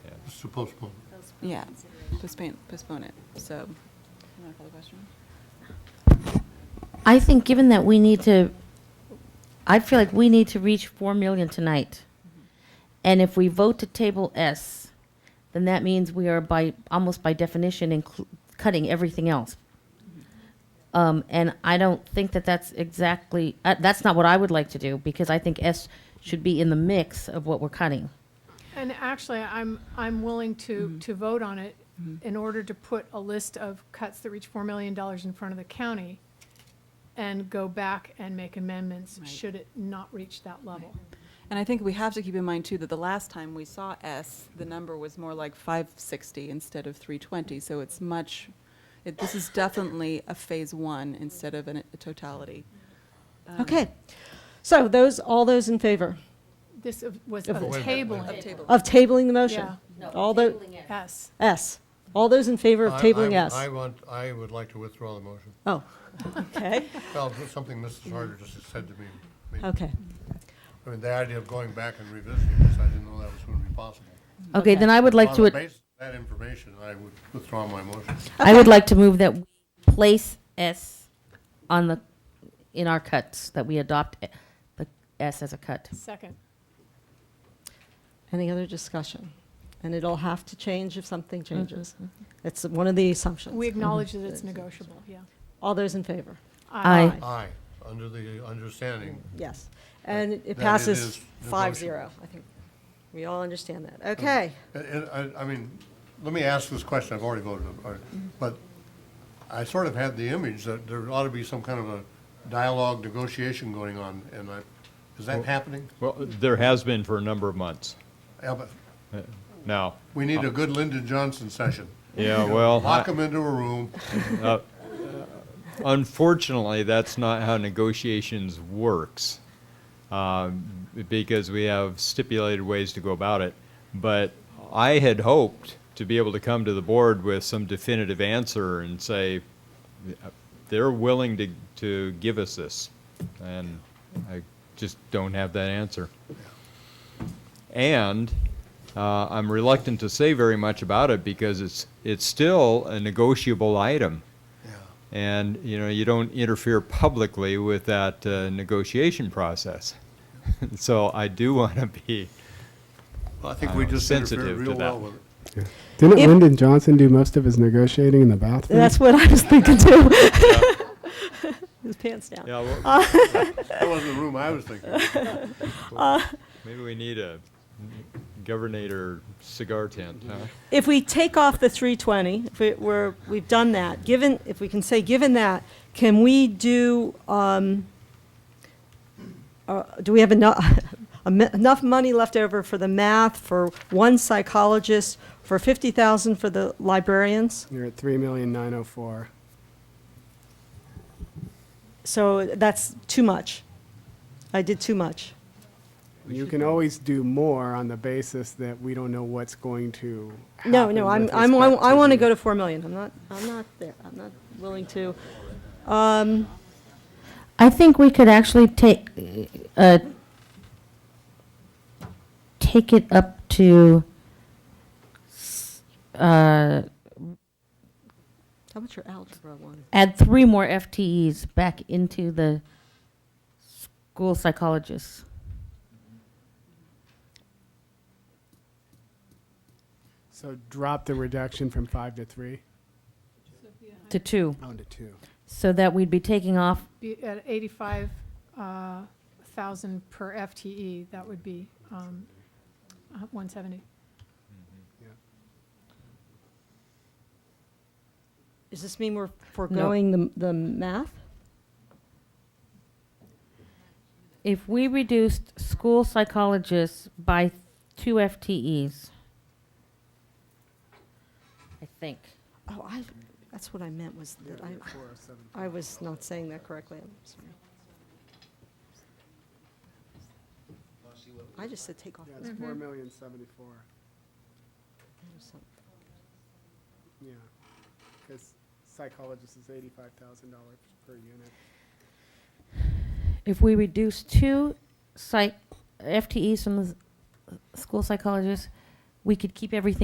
to postpone. Yeah, postpone, postpone it, so. You want to call the question? I think given that we need to, I feel like we need to reach four million tonight. And if we vote to table S, then that means we are by, almost by definition, inclu- cutting everything else. Um, and I don't think that that's exactly, uh, that's not what I would like to do, because I think S should be in the mix of what we're cutting. And actually, I'm, I'm willing to, to vote on it in order to put a list of cuts that reach $4 million in front of the county and go back and make amendments Right. should it not reach that level. And I think we have to keep in mind too that the last time we saw S, the number was more like 560 instead of 320. So it's much, it, this is definitely a phase one instead of an, a totality. Um, Okay. So those, all those in favor This of- was of Of what? Of tabling, table. of tabling the motion? Yeah. All the, yes. S. All those in favor of I- I tabling would- S? I want, I would like to withdraw the motion. Oh, okay, Well, something Mrs. Harder just said to me. made- okay. I mean, the idea of going back and revisiting this, I didn't know that was going to be possible. Okay, then I would like to. On the basis of that information, I would withdraw my motion. I would like to move that we place S on the, in our cuts, that we adopt e- the S as a cut. Second, Any other discussion? And it'll have to change if something changes. It's one of the Mm-hmm. we assumptions. acknowledge that it's negotiable, yeah. Uh, All those in favor? Aye. Aye, under the understanding. Yes. And it it is passes the five motion. Oh. zero, I think. We all understand that. Okay. And- and I, I mean, let me ask this question, I've already voted, on it, Mm-hmm. but I sort of had the image that there ought to be some kind of a dialogue, negotiation going on, and I, is that happening? Well, there has been for a number of months Yeah, but now. We need a good Lyndon Johnson session. Yeah, well, Lock them into a room. unfortunately, that's not how negotiations works, um, because we have stipulated ways to go about it. But I had hoped to be able to come to the board with some definitive answer and say, they're willing to, to give us this. And I just don't have that answer. And uh, I'm reluctant to say very much about it because it's, it's still a negotiable item. And, you know, you don't interfere publicly with that uh, negotiation process. So I do want to be, I think we I'm just interfered sensitive to real that. well with it. Didn't If- Lyndon Johnson do most of his negotiating in the bathroom? That's what I was thinking too. His pants down. yeah, well, That wasn't the room I was thinking. of. maybe we need a governor cigar tent, huh? If we take off the 320, if we, we're, we've done that, given, if we can say, given that, can we do, um, uh, do we have enough, enough money left over for the math, for one psychologist, for 50,000 for the librarians? You're at three million nine oh four. So that's too much. I did too much. You can always do more on the basis that we don't know what's going to happen. No, no, I'm, with I'm, I respect I want to the- go to 4 million. I'm not, I'm not there, I'm not willing to. I think we could actually take, uh, take it up to, uh, How about your algebra one? add three more FTEs back into the school psychologists. So drop the reduction from five to three, To two, down to two. so that we'd be taking off, Be at 85,000 per FTE, that would be um, uh, 170. Does this mean we're foregoing the, the math? if we reduced school psychologists by two FTEs. I think. Oh, I, that's what I meant was that I, I was not saying that correctly. I'm sorry. I just said take off. Yeah, the- it's four million seventy-four, yeah. Because psychologist is eighty-five thousand dollars per unit. If we reduce two psych, FTEs from the s- school psychologists, we could keep everything